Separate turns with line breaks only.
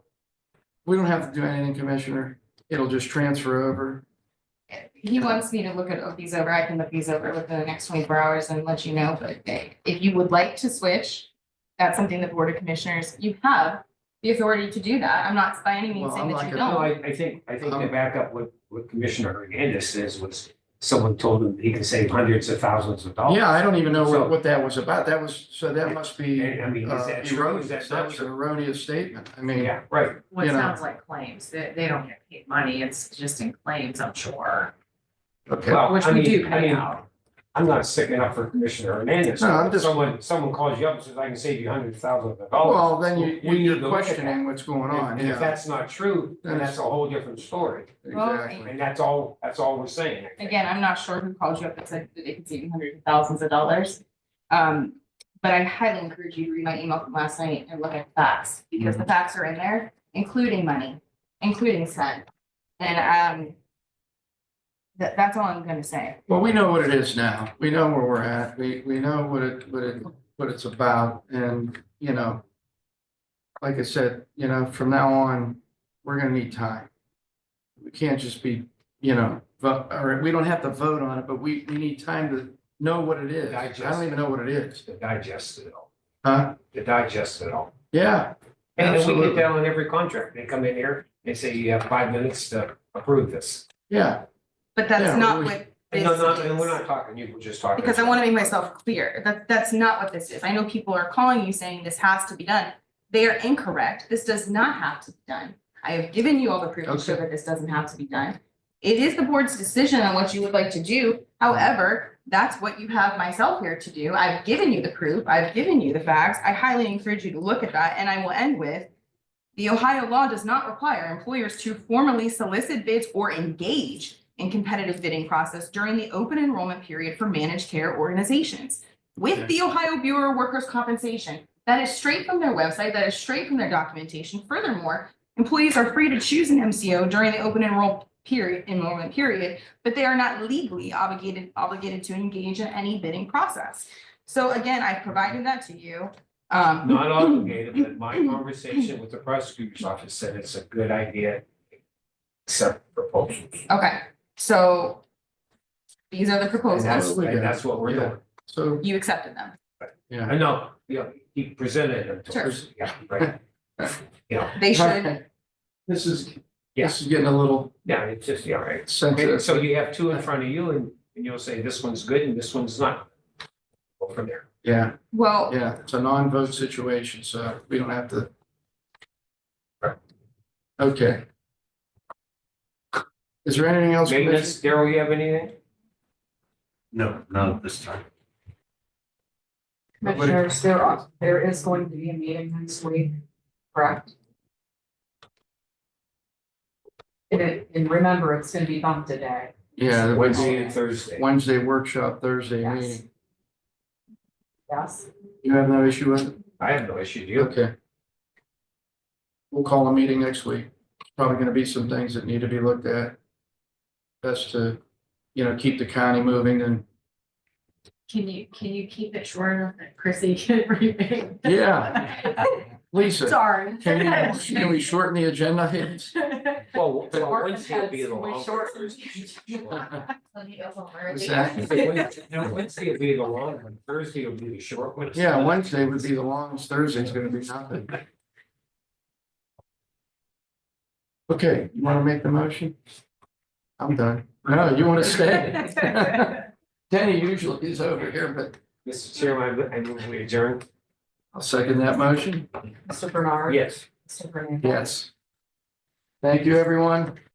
We don't have to do anything, Commissioner. It'll just transfer over.
He wants me to look at these over, I can look these over within the next twenty-four hours and let you know, but if you would like to switch, that's something the Board of Commissioners, you have the authority to do that, I'm not by any means
Well, I'm
saying that
like
you
Oh.
a-
don't.
No, I, I think, I think to back up what, what Commissioner Hernandez says was, someone told him he could save hundreds of thousands of dollars.
Yeah, I don't even know
Oh. So-
what, what that was about. That was, so that must be
And I mean, is
uh,
that true?
erroneous.
Is that
That
not
was an
true?
erroneous statement. I mean,
Yeah, right.
What
you know.
sounds like claims, they, they don't get paid money, it's just in claims, I'm sure.
okay.
Well,
Which
Oh, I
we
mean-
do
I
pay
mean,
out.
I'm not sticking up for Commissioner Hernandez.
No, I'm
If
just-
Someone, someone calls you up and says, I can save you hundreds of thousands of dollars.
Well, then you,
We need
you're
to look at that.
questioning what's going on,
And if
yeah.
that's not true, then that's a whole different story.
Well,
Exactly.
And that's all, that's all we're saying. I think.
Again, I'm not sure who called you up and said that they could save you hundreds of thousands of dollars. Um, but I highly encourage you to read my email from last night and look at the facts, because
Mm-hmm.
the facts are in there, including money, including spend. And, um, that, that's all I'm gonna say.
Well, we know what it is now. We know where we're at. We, we know what it, what it, what it's about and, you know. Like I said, you know, from now on, we're gonna need time. We can't just be, you know, vote, or we don't have to vote on it, but we, we need time to know what it is. I
Digest
don't
it.
even know what it is.
To digest it all,
Huh?
to digest it all.
Yeah,
And then we
Absolutely.
get that on every contract. They come in here and say, you have five minutes to approve this.
yeah.
But
Yeah,
that's not
we-
what
And
this
no, not, and we're
is.
not talking, you were just talking.
Because I wanna make myself clear, that, that's not what this is. I know people are calling you saying this has to be done. They are incorrect. This does not have to be done. I have given you all the proof to show
Okay.
that this doesn't have to be done. It is the board's decision on what you would like to do. However, that's what you have myself here to do. I've given you the proof. I've given you the facts. I highly encourage you to look at that, and I will end with the Ohio law does not require employers to formally solicit bids or engage in competitive bidding process during the open enrollment period for managed care organizations. With the Ohio Bureau of Workers' Compensation, that is straight from their website, that is straight from their documentation. Furthermore, employees are free to choose an MCO during the open enroll period, enrollment period, but they are not legally obligated, obligated to engage in any bidding process. So again, I provided that to you. Um,
Not obligated, but my conversation with the prosecutor's office said it's a good idea. Except proposals.
Okay, so these are the
And that's,
proposals.
and that's what we're doing.
So,
You accepted them.
I know, you know, he presented them to
Sure.
us. Yeah, right.
They should,
okay. this is,
Yeah.
this is getting a little
Yeah, it's just, yeah, right. Okay,
sensitive.
So you have two in front of you and, and you'll say this one's good and this one's not. Go from there.
Yeah,
well,
yeah. It's a non-vote situation, so we don't have to. Okay. Is there anything else? Commissioner?
Maintenance, Daryl, you have anything?
No, not at this time.
Commissioners, there are, there is going to be a meeting next week, correct? And it, and remember, it's gonna be bumped today.
Yeah, the
Wednesday
Wednesday,
and Thursday.
Wednesday workshop, Thursday
Yes.
meeting.
yes?
You have no issue with it?
I have no issue, do you?
Okay. We'll call a meeting next week. Probably gonna be some things that need to be looked at. Best to, you know, keep the county moving and,
Can you, can you keep it short enough that Chrissy can remain?
yeah, Lisa,
Sorry.
can you, can we shorten the agenda?
Well, well,
Or
Wednesday will be the
we
long.
shorten.
Exactly.
No, Wednesday will be the long one, Thursday will be the short one.
Yeah, Wednesday would be the longest, Thursday's gonna be nothing. Okay, you wanna make the motion? I'm done. No, you wanna stay? Danny usually is over here, but
Mr. Chairman, I move we adjourn.
I'll second that motion.
Mr. Bernard?
Yes.
Mr. Hernandez?
Yes. Thank you, everyone.